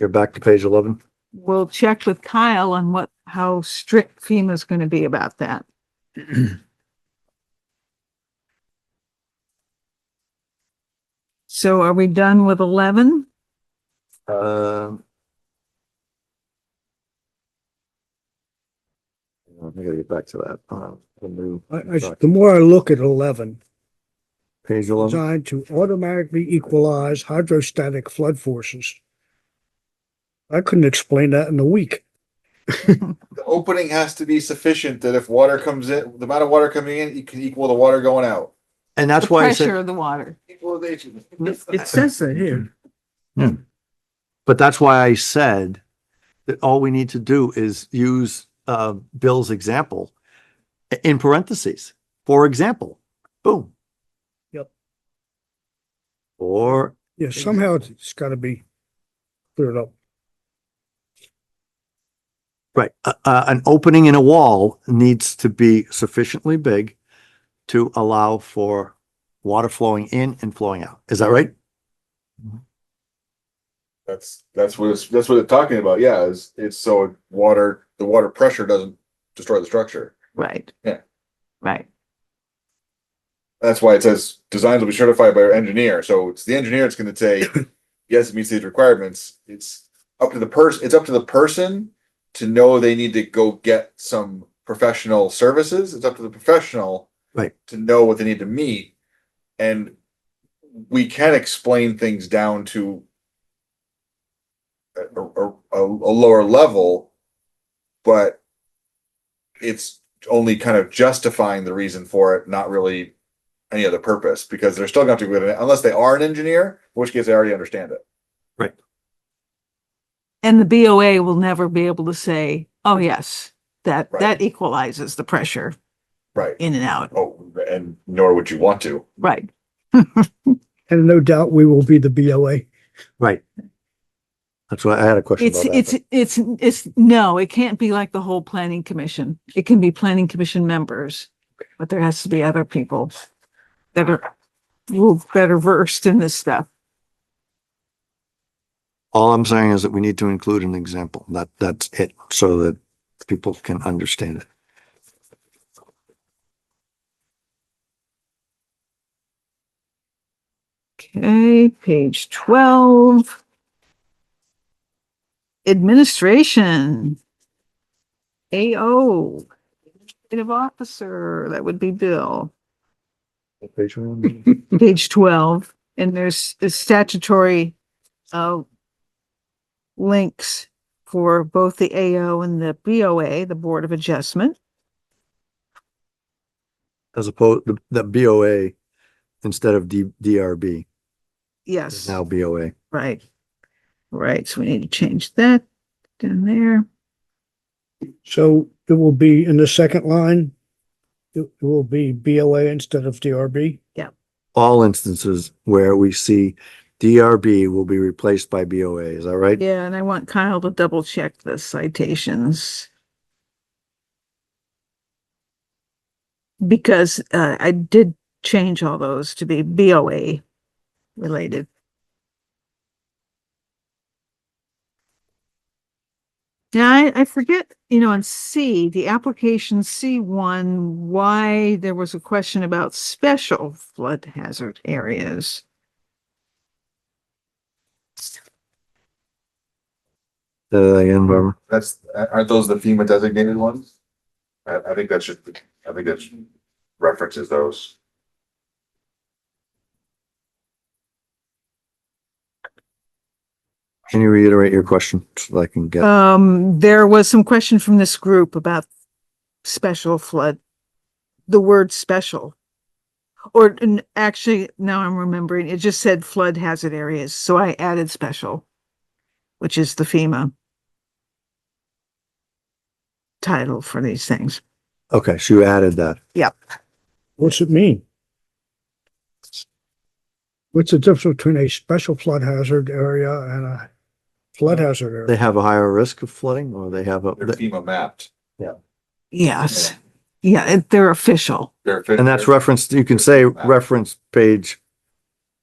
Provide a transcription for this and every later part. You're back to page eleven. we'll check with Kyle on what, how strict FEMA's going to be about that. So are we done with eleven? Um. I gotta get back to that. Uh, the new I, I, s- the more I look at eleven, page eleven. designed to automatically equalize hydrostatic flood forces. I couldn't explain that in a week. the opening has to be sufficient that if water comes in, the amount of water coming in, it can equal the water going out. And The that's why I pressure said, of the water. Equalization. It says that here. but that's why I said that all we need to do is use, uh, Bill's example i- in parentheses. For example, boom. Yep. Or Yeah, somehow it's- it's gotta be cleared up. Right, uh, uh, an opening in a wall needs to be sufficiently big to allow for water flowing in and flowing out. Is that right? That's, that's what it's, that's what they're talking about, yeah, is, it's so water, the water pressure doesn't destroy the structure. Right. Yeah. Right. That's why it says designs will be certified by our engineer, so it's the engineer that's gonna say, yes, it meets these requirements. It's up to the person, it's up to the person to know they need to go get some professional services, it's up to the professional. Right. To know what they need to meet, and we can explain things down to. A, a, a- a lower level, but. It's only kind of justifying the reason for it, not really any other purpose because they're still going to have to go to unless they are an engineer, in which case they already understand it. And the BOA will never be able to say, oh, yes, that, Right. that equalizes the pressure Right. in and out. Oh, and nor would you want to. Right. And no doubt we will be the BOA. Right. That's why I had a question It's, about it's, that. it's, it's, no, it can't be like the whole planning commission. It can be planning commission members, but there has to be other people that are a little better versed in this stuff. All I'm saying is that we need to include an example. That, that's it, so that people can understand it. Okay, page twelve. Administration. AO. Administrative officer, that would be Bill. Page one. Page twelve, and there's a statutory, uh, links for both the AO and the BOA, the Board of Adjustment. As opposed, the, the BOA instead of D, DRB, Yes. is now BOA. Right. Right, so we need to change that down there. So it will be in the second line. It it will be BOA instead of DRB. All instances where we see DRB will be replaced by BOA. Is that right? Yeah, and I want Kyle to double check the citations. Because uh, I did change all those to be BOA related. Now, I, I forget, you know, on C, the application C1, why there was a question about special flood hazard areas. Say that again, Barbara. That's aren't those the FEMA designated ones? I, I think that should. I think that should- references those. Can you reiterate your question so that I can get? Um, there was some question from this group about special flood, the word special. Or n- actually, now I'm remembering, it just said flood hazard areas, so I added special, which is the FEMA title for these things. Okay, so you added that. What's it mean? What's the difference between a special flood hazard area and a flood hazard area? They have a higher risk of flooding or they have a, They're FEMA mapped. Yes, yeah, it- they're official. They're and that's referenced, you can say reference page,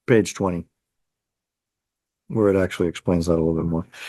page twenty. Where it actually explains that a little bit more.